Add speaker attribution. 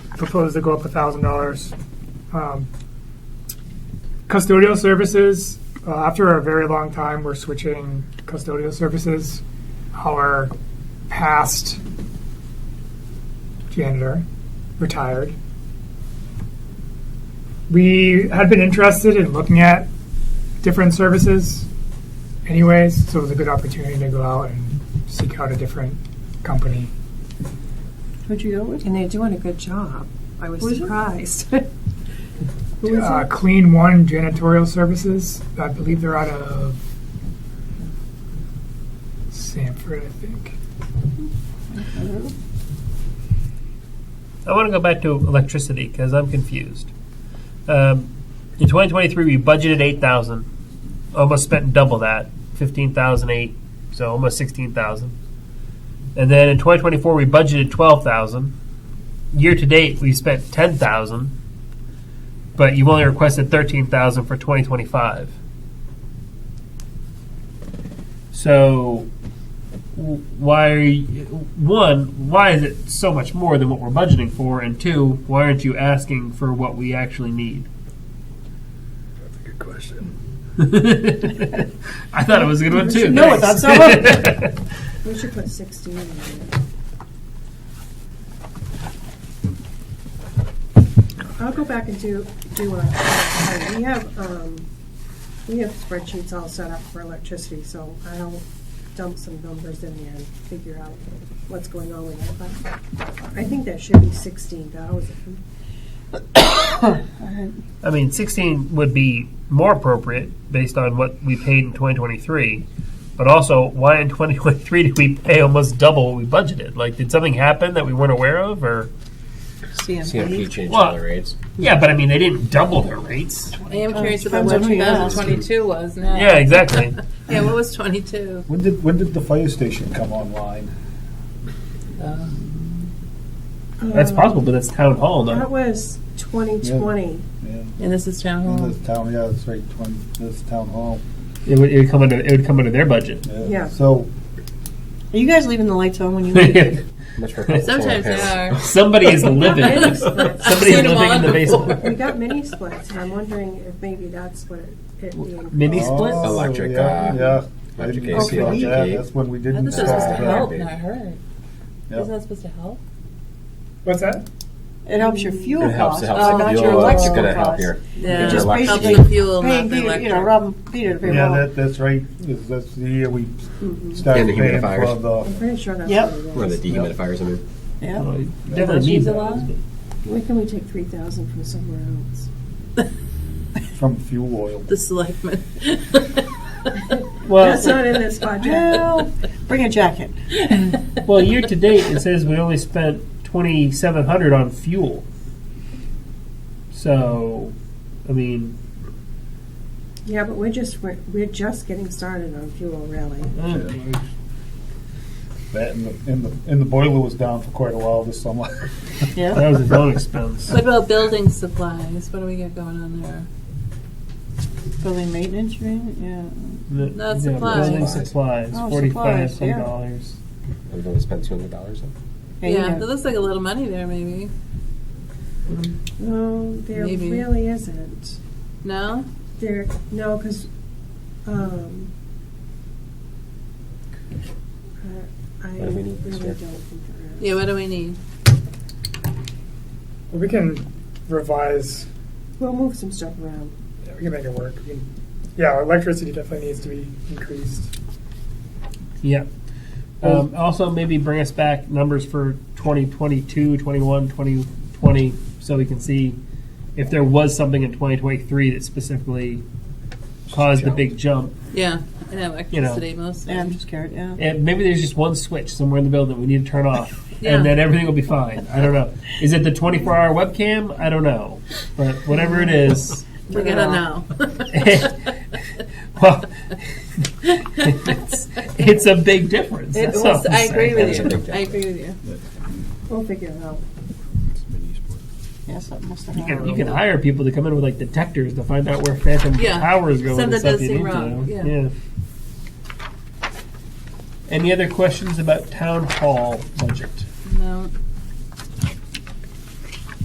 Speaker 1: proposed to go up thousand dollars. Um, Custodial services, uh, after a very long time, we're switching custodial services. Our past janitor retired. We had been interested in looking at different services anyways, so it was a good opportunity to go out and seek out a different company.
Speaker 2: Who'd you go with?
Speaker 3: And they're doing a good job. I was
Speaker 2: Was it?
Speaker 3: surprised.
Speaker 2: Who was
Speaker 1: uh,
Speaker 2: it?
Speaker 1: Clean One Janitorial Services. I believe they're out of Sanford, I think.
Speaker 4: I want to go back to electricity because I'm confused. Um, in 2023, we budgeted 8,000, almost spent double that, 15,008, so almost 16,000. And then in 2024, we budgeted 12,000. Year to date, we spent 10,000, but you've only requested 13,000 for 2025. So why are you, one why is it so much more than what we're budgeting for and two why aren't you asking for what we actually need
Speaker 5: That's a good question.
Speaker 4: i thought it was a good one too
Speaker 2: No,
Speaker 4: Thanks.
Speaker 2: that's not We should put sixteen in there. I'll go back and do, do a, we have, um, we have spreadsheets all set up for electricity, so I'll dump some numbers in there and figure out what's going on with that. But I think that should be sixteen thousand.
Speaker 4: i mean 16 would be more appropriate based on what we paid in 2023 but also why in 2023 did we pay almost double what we budgeted like did something happen that we weren't aware of or
Speaker 6: CMP changed
Speaker 4: Well-
Speaker 6: all the rates.
Speaker 4: yeah but i mean they didn't double their rates
Speaker 7: I am curious about
Speaker 2: depends
Speaker 7: what
Speaker 2: on who you ask.
Speaker 7: 2022 was now.
Speaker 4: yeah exactly
Speaker 7: Yeah, what was 22?
Speaker 5: When did when did the fire station come online?
Speaker 4: that's possible but that's town hall though
Speaker 2: That was twenty twenty.
Speaker 5: Yeah,
Speaker 7: And this is town
Speaker 5: in
Speaker 7: hall.
Speaker 5: this town. Yeah, that's right. Twenty. This town hall.
Speaker 4: It would, it would come under it would come under their budget.
Speaker 5: Yeah.
Speaker 2: Yeah.
Speaker 5: So
Speaker 2: Are you guys leaving the lights on when you leave?
Speaker 6: Much more helpful
Speaker 7: Sometimes
Speaker 6: than
Speaker 7: they are.
Speaker 4: Somebody is living. Somebody is living
Speaker 7: Seen 'em
Speaker 4: in
Speaker 7: on
Speaker 4: the
Speaker 7: before.
Speaker 4: basement.
Speaker 2: We got mini splits, and I'm wondering if maybe that's what it, it means.
Speaker 4: Mini
Speaker 5: oh,
Speaker 4: splits.
Speaker 6: Electric,
Speaker 5: Yeah,
Speaker 6: uh,
Speaker 5: yeah. I
Speaker 6: electric
Speaker 5: didn't
Speaker 6: AC,
Speaker 5: know about
Speaker 6: electric
Speaker 5: that.
Speaker 6: heat.
Speaker 5: That's when we
Speaker 7: I thought
Speaker 5: didn't.
Speaker 7: this was supposed to
Speaker 5: start.
Speaker 7: help, not hurt.
Speaker 5: Yeah.
Speaker 7: Isn't that supposed to help?
Speaker 1: What's that?
Speaker 2: It helps your fuel
Speaker 6: It helps.
Speaker 2: costs,
Speaker 6: It
Speaker 2: but not
Speaker 6: helps the
Speaker 2: Oh, your
Speaker 6: fuel. It's
Speaker 2: electrical
Speaker 6: gonna help
Speaker 2: costs.
Speaker 6: your.
Speaker 7: Yeah,
Speaker 6: just
Speaker 7: helps
Speaker 2: basically
Speaker 7: the fuel, not
Speaker 2: Paying
Speaker 7: the
Speaker 2: Peter,
Speaker 7: electric.
Speaker 2: you know, rob Peter to pay
Speaker 5: Yeah,
Speaker 2: well.
Speaker 5: that, that's right. That's, that's the year we
Speaker 7: Mm-hmm.
Speaker 5: started
Speaker 6: And the
Speaker 5: paying for
Speaker 6: humidifiers.
Speaker 5: the.
Speaker 2: I'm pretty sure that's
Speaker 3: Yep.
Speaker 2: what
Speaker 6: One
Speaker 2: it
Speaker 6: of
Speaker 2: is.
Speaker 6: the dehumidifiers. I mean,
Speaker 2: Yeah.
Speaker 4: Definitely need
Speaker 7: Cheese a
Speaker 4: that.
Speaker 7: lot?
Speaker 2: Why can we take three thousand from somewhere else?
Speaker 5: from fuel oil.
Speaker 7: The selectmen.
Speaker 2: That's
Speaker 4: Well,
Speaker 2: not in this budget.
Speaker 3: well, bring a jacket.
Speaker 4: well, year to date it says we only spent twenty seven hundred on fuel. So, I mean,
Speaker 2: Yeah, but we're just, we're, we're just getting started on fuel really.
Speaker 4: uh,
Speaker 5: That and the, and the and the boiler was down for quite a while this summer.
Speaker 4: that was a own expense.
Speaker 7: What about building supplies? What do we got going on there?
Speaker 3: Building maintenance, you mean?
Speaker 4: Not
Speaker 7: supplies.
Speaker 4: Building supplies,
Speaker 3: Oh,
Speaker 4: forty five
Speaker 3: supplies, yeah.
Speaker 4: dollars.
Speaker 6: we've only spent two hundred dollars.
Speaker 3: Yeah.
Speaker 7: yeah,
Speaker 3: you
Speaker 7: there
Speaker 3: know,
Speaker 7: looks like a little money there, maybe.
Speaker 2: No, there
Speaker 7: Maybe.
Speaker 2: really isn't.
Speaker 7: No?
Speaker 2: There, no, because, um, I I
Speaker 6: What do we
Speaker 2: really
Speaker 6: need
Speaker 2: don't
Speaker 6: this year?
Speaker 2: think there is.
Speaker 7: Yeah, what do we need?
Speaker 1: We can revise.
Speaker 2: We'll move some stuff around.
Speaker 1: yeah, We can make it work. We can, yeah, electricity definitely needs to be increased.
Speaker 4: Yeah. Um, also, maybe bring us back numbers for 2022, 21, 2020, so we can see if there was something in 2023 that specifically caused the big jump.
Speaker 7: Yeah, and electricity mostly.
Speaker 3: yeah, I'm just scared. Yeah.
Speaker 4: And maybe there's just one switch somewhere in the building we need to turn off,
Speaker 7: Yeah.
Speaker 4: and then everything will be fine. I don't know. Is it the 24 hour webcam? I don't know. But whatever it is,
Speaker 7: We're gonna know.
Speaker 4: uh, well, it's, it's a big difference.
Speaker 7: It
Speaker 4: That's
Speaker 7: was-
Speaker 4: all I'm
Speaker 7: I agree
Speaker 4: saying.
Speaker 7: with
Speaker 6: That's a big
Speaker 7: you. I agree with you.
Speaker 2: We'll figure it out.
Speaker 3: Yeah, something must have
Speaker 4: You can,
Speaker 3: happened.
Speaker 4: you can hire people to come in with like detectors to find out where phantom
Speaker 7: Yeah.
Speaker 4: power is going.
Speaker 7: Something
Speaker 4: and stuff
Speaker 7: does
Speaker 4: you
Speaker 7: seem
Speaker 4: need to
Speaker 7: wrong,
Speaker 4: know.
Speaker 7: yeah.
Speaker 4: Any other questions about town hall budget?
Speaker 7: No.